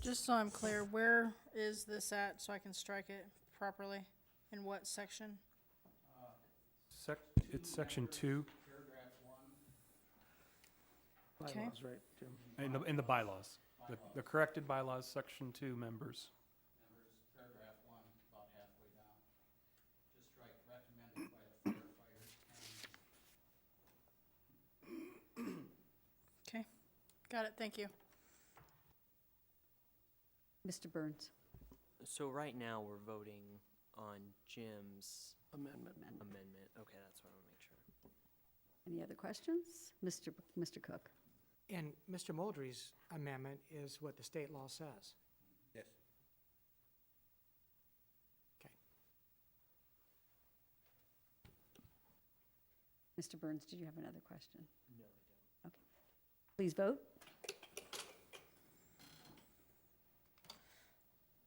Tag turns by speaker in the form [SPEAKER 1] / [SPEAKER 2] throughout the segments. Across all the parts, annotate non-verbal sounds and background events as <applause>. [SPEAKER 1] Just so I'm clear, where is this at so I can strike it properly? In what section?
[SPEAKER 2] Sec, it's section two,
[SPEAKER 1] Okay.
[SPEAKER 3] Bylaws, right, Jim?
[SPEAKER 2] in the, in the bylaws. The, the corrected bylaws, section two members.
[SPEAKER 4] paragraph one, about halfway down. Just strike recommended by the firefighters and
[SPEAKER 1] Okay, got it, thank you.
[SPEAKER 5] Mr. Burns?
[SPEAKER 6] So right now, we're voting on Jim's
[SPEAKER 3] Amendment.
[SPEAKER 6] amendment. Okay, that's what I want to make sure.
[SPEAKER 5] Any other questions? Mr. B- Mr. Cook?
[SPEAKER 7] And Mr. Mulderry's amendment is what the state law says.
[SPEAKER 4] Yes.
[SPEAKER 7] Okay.
[SPEAKER 5] Mr. Burns, did you have another question? No, I don't. Okay. Please vote.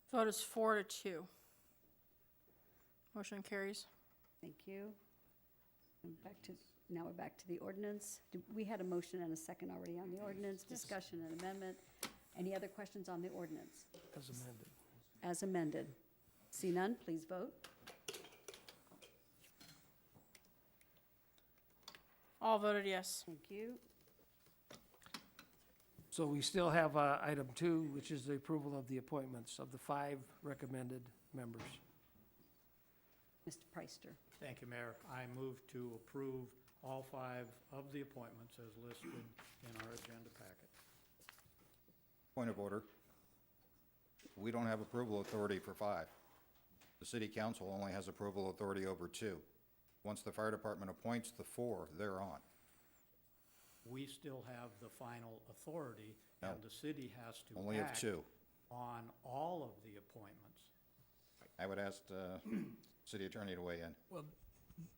[SPEAKER 1] Vote is four to two. Motion carries.
[SPEAKER 5] Thank you. And back to, now we're back to the ordinance. Did- We had a motion and a second already on the ordinance, discussion and amendment. Any other questions on the ordinance
[SPEAKER 3] As amended.
[SPEAKER 5] as amended? See none, please vote.
[SPEAKER 1] All voted yes.
[SPEAKER 5] Thank you.
[SPEAKER 3] So we still have uh, item two, which is the approval of the appointments of the five recommended members.
[SPEAKER 5] Mr. Preister,
[SPEAKER 4] Thank you, Mayor. I move to approve all five of the appointments as listed in our agenda packet.
[SPEAKER 8] Point of order. We don't have approval authority for five. The city council only has approval authority over two. Once the fire department appoints the four, they're on.
[SPEAKER 4] We still have the final authority, and
[SPEAKER 8] No.
[SPEAKER 4] the city has to
[SPEAKER 8] Only of
[SPEAKER 4] act
[SPEAKER 8] two.
[SPEAKER 4] on all of the appointments.
[SPEAKER 8] I would ask the <clears throat> city attorney to weigh in.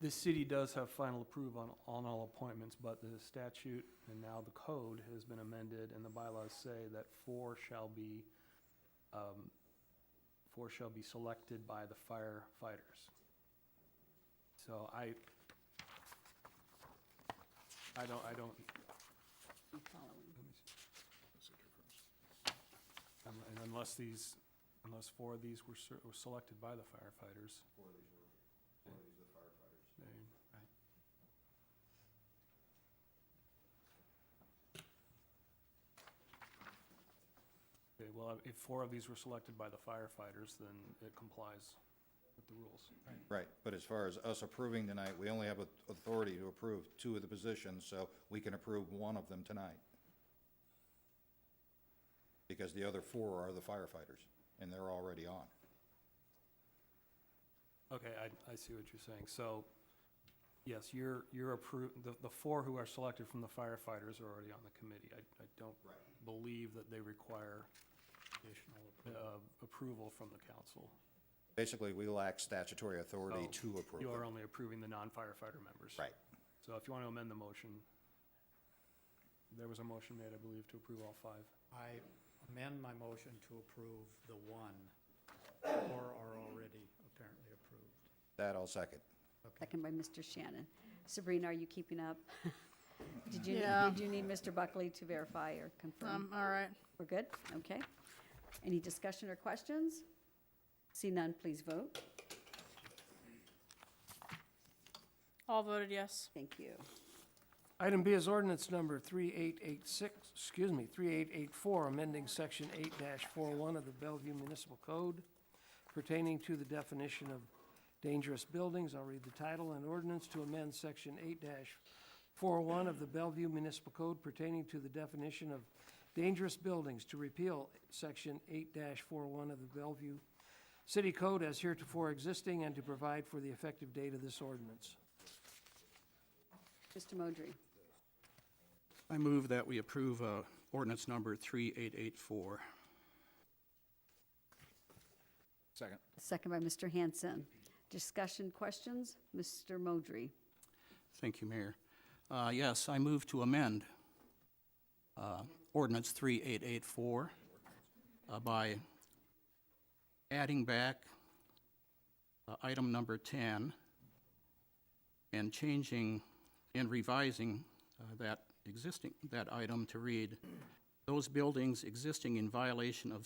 [SPEAKER 2] The city does have final approval on, on all appointments, but the statute and now the code has been amended and the bylaws say that four shall be, um, four shall be selected by the firefighters. So I, I don't, I don't,
[SPEAKER 5] I'm following.
[SPEAKER 2] un- Um, and unless these, unless four of these were, ser- were selected by the firefighters. Four of these were, four of these are firefighters. Okay, well, if four of these were selected by the firefighters, then it complies with the rules.
[SPEAKER 8] Right, but as far as us approving tonight, we only have au- authority to approve two of the positions, so we can approve one of them tonight. Because the other four are the firefighters, and they're already on.
[SPEAKER 2] Okay, I, I see what you're saying. So, yes, you're, you're appro, the, the four who are selected from the firefighters are already on the committee. I, I don't believe that they require
[SPEAKER 4] Additional
[SPEAKER 2] uh,
[SPEAKER 4] approval.
[SPEAKER 2] approval from the council.
[SPEAKER 8] Basically, we lack statutory authority
[SPEAKER 2] So,
[SPEAKER 8] to approve
[SPEAKER 2] You are
[SPEAKER 8] them.
[SPEAKER 2] only approving the non-firefighter members.
[SPEAKER 8] Right.
[SPEAKER 2] So if you want to amend the motion, there was a motion made, I believe, to approve all five.
[SPEAKER 4] I amend my motion to approve the one, or are already apparently approved.
[SPEAKER 8] That I'll second.
[SPEAKER 5] Second by Mr. Shannon. Sabrina, are you keeping up? <laughs> Did you,
[SPEAKER 1] Yeah.
[SPEAKER 5] did you need Mr. Buckley to verify or
[SPEAKER 1] Um,
[SPEAKER 5] confirm?
[SPEAKER 1] all right.
[SPEAKER 5] We're good? Okay. Any discussion or questions? See none, please vote.
[SPEAKER 1] All voted yes.
[SPEAKER 5] Thank you.
[SPEAKER 3] Item B is ordinance number 3886, excuse me, 3884, amending Section 8-41 of the Bellevue Municipal Code pertaining to the definition of dangerous buildings. I'll read the title. An ordinance to amend Section 8-41 of the Bellevue Municipal Code pertaining to the definition of dangerous buildings to repeal Section 8-41 of the Bellevue City Code as heretofore existing and to provide for the effective date of this ordinance.
[SPEAKER 5] Mr. Modry,
[SPEAKER 9] I move that we approve uh, ordinance number 3884.
[SPEAKER 8] Second.
[SPEAKER 5] second by Mr. Hanson. Discussion, questions? Mr. Modry,
[SPEAKER 9] Thank you, Mayor. Uh, Yes, I move to amend uh, ordinance 3884 uh, by adding back uh, item number 10 and changing and revising uh, that existing, that item to read, "Those buildings existing in violation of